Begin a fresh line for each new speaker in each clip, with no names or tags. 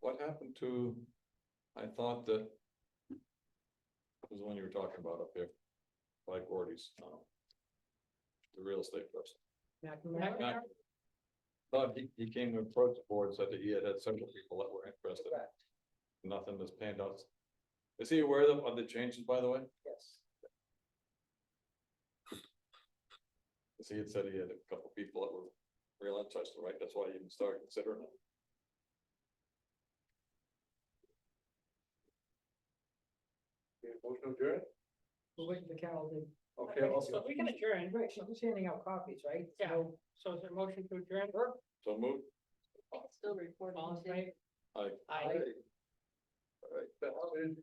what happened to, I thought that. Was the one you were talking about up here, like Gordy's, um. The real estate person.
McNamara?
Mac- Thought he, he came to approach the board, said that he had had several people that were interested,
Correct,
nothing has panned out. Is he aware of, of the changes, by the way?
yes.
'Cause he had said he had a couple people that were real interested, right? That's why he even started considering it.
Motion adjourned?
We're waiting for Carol to.
Okay, I'll
So we can adjourn,
Right, she's just handing out copies, right?
Yeah.
So-
so is there a motion to adjourn?
So move.
Still recording.
All in
too.
favor?
I,
Aye.
All right, that was,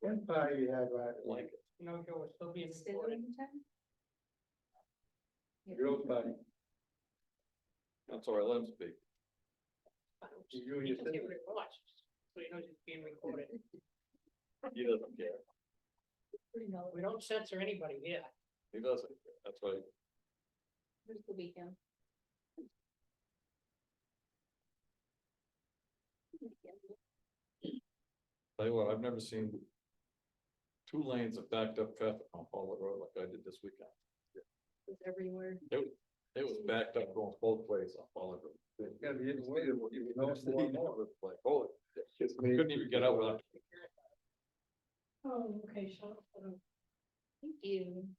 one party you had, right?
Like it.
No, Joe, we're still being
Stay there
recorded.
in time?
Girls party,
that's all right, let him speak.
you and
You
your
can see
sister.
what it was, so you know it's being recorded.
He doesn't care.
Pretty mellow.
We don't censor anybody here.
He doesn't. care. That's right.
Where's the weekend?
Tell you what, I've never seen two lanes of backed up traffic on Paul Road like I did this weekend.
It's everywhere.
It was backed up going both ways on Paul Road.
It's gonna be interesting, you know,
It's
more and more.
like, holy, Couldn't even get out without.
Oh, okay, so.
Thank you.